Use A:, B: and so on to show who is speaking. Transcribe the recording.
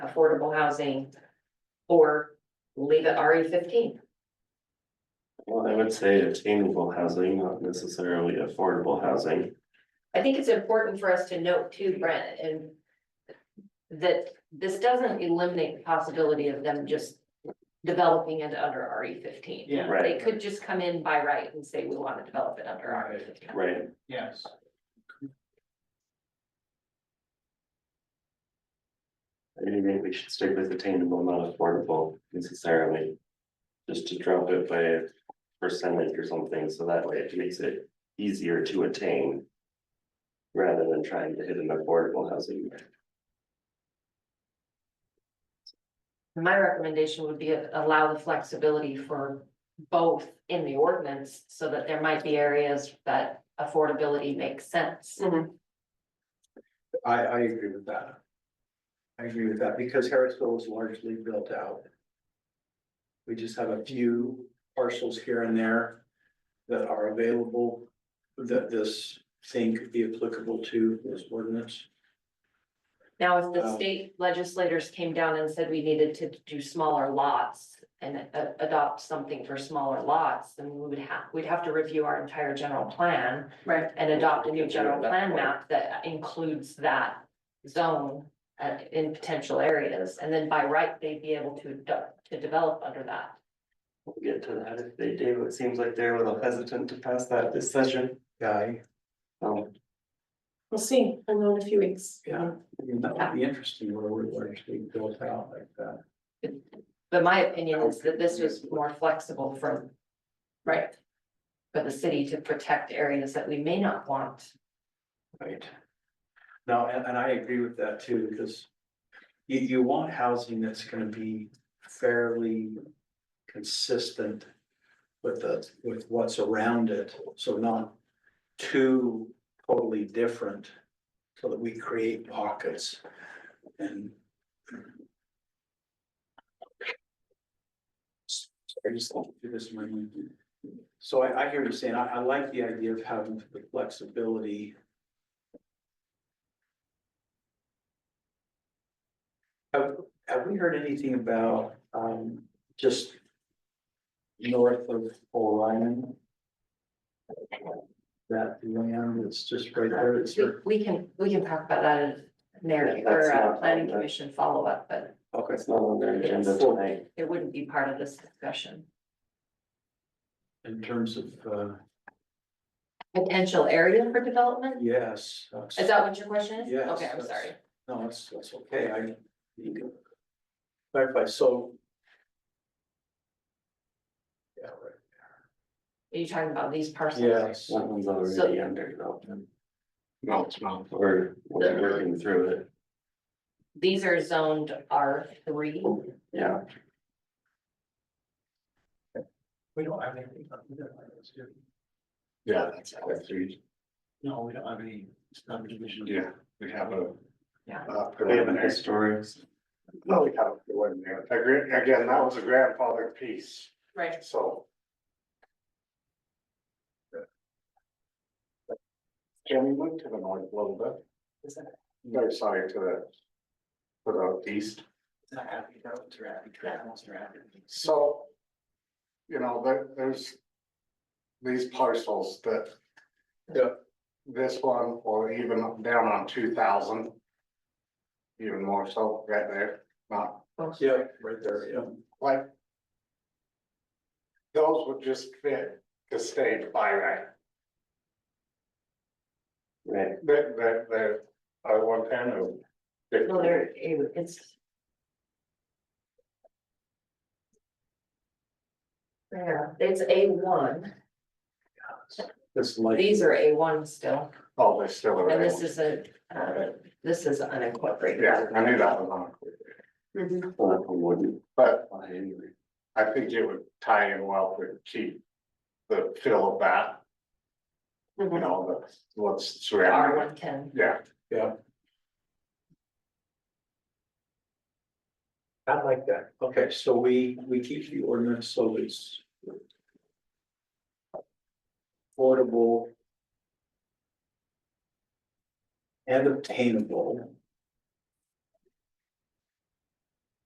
A: affordable housing. Or leave it RE fifteen.
B: Well, I would say attainable housing, not necessarily affordable housing.
A: I think it's important for us to note too, Brent, and. That this doesn't eliminate the possibility of them just developing it under RE fifteen.
C: Yeah.
A: They
B: Right,
A: could just come in by right and say, we want to develop it under RE fifteen.
B: right.
C: Yes.
B: I do think we should stick with attainable, not affordable necessarily. Just to drop it by a percentage or something, so that way it makes it easier to attain. Rather than trying to hit an affordable housing.
A: My recommendation would be allow the flexibility for both in the ordinance, so that there might be areas that affordability makes sense.
C: I, I agree with that. I agree with that because Harrisville is largely built out. We just have a few parcels here and there that are available that this thing could be applicable to this ordinance.
A: Now, if the
C: Um,
A: state legislators came down and said we needed to do smaller lots and a- adopt something for smaller lots, then we would have, we'd have to review our entire general plan
D: Right.
A: and adopt a new general
B: Yeah, that's
A: plan
B: right.
A: map that includes that zone uh, in potential areas, and then by right, they'd be able to de- to develop under that.
B: We'll get to that if they do, it seems like they're a little hesitant to pass that this session.
C: Guy,
B: Um,
D: We'll see, I know in a few weeks.
C: yeah, I mean, that would be interesting where we're largely built out like that.
A: But my opinion is that this was more flexible for
D: Right,
A: for the city to protect areas that we may not want.
C: Right. No, and, and I agree with that too, because you, you want housing that's gonna be fairly consistent with the, with what's around it, so not too totally different, so that we create pockets and I just don't do this in my mind. So I, I hear you saying, I, I like the idea of having the flexibility Have, have we heard anything about, um, just north of Orion? That land is just right there, it's,
A: We- We can, we can talk about that in narrative or
B: That's
A: uh,
B: not-
A: planning commission follow-up, but
C: okay,
B: it's not on their agenda tonight.
A: it wouldn't be part of this discussion.
C: in terms of, uh,
A: Potential area for development?
C: yes. that's-
A: Is that what your question is?
C: Yes,
A: Okay, I'm
C: that's-
A: sorry.
C: No, that's, that's okay, I. you can Clarify, so. Yeah, right,
A: Are you talking about these parcels?
C: yes,
B: That one's already
A: So-
B: under development.
E: No, it's not.
B: We're, we're working through it,
A: These are zoned R three.
C: Oh,
B: yeah.
C: we don't have anything. on either one of those, do we?
E: Yeah, that's our three.
C: No, we don't have any subdivision.
E: Yeah, we have a.
A: Yeah.
E: uh,
B: We have an
E: preliminary.
B: historic,
E: No, we have a preliminary. Agre- Again, that was a grandfather piece,
D: right.
E: so. Can we move to the north a little bit? Is that? No, sorry, to the. To the east.
C: Not happy, that was happy, travels, they're happy.
E: So. You know, there, there's. These parcels that.
C: Yeah.
E: This one, or even up- down on two thousand. Even more so, right there, not
C: Yeah, right there, yeah.
E: like. Those would just fit the state by right,
B: right,
E: that, that, that, I want to.
A: Well, there, it's. Yeah, it's A one.
C: This light,
A: These are A one still,
E: Oh, they still are.
A: and this is a, uh, this is unincorporated.
E: Yeah, I knew that was on,
B: well, that one wouldn't
E: but
B: apply anyway.
E: I think it would tie in well to keep. The feel of that. you know, the, what's
A: R
E: surrounding,
A: one ten,
E: yeah,
C: I like that. Okay, so we, we keep the ordinance, so it's. Affordable. And obtainable.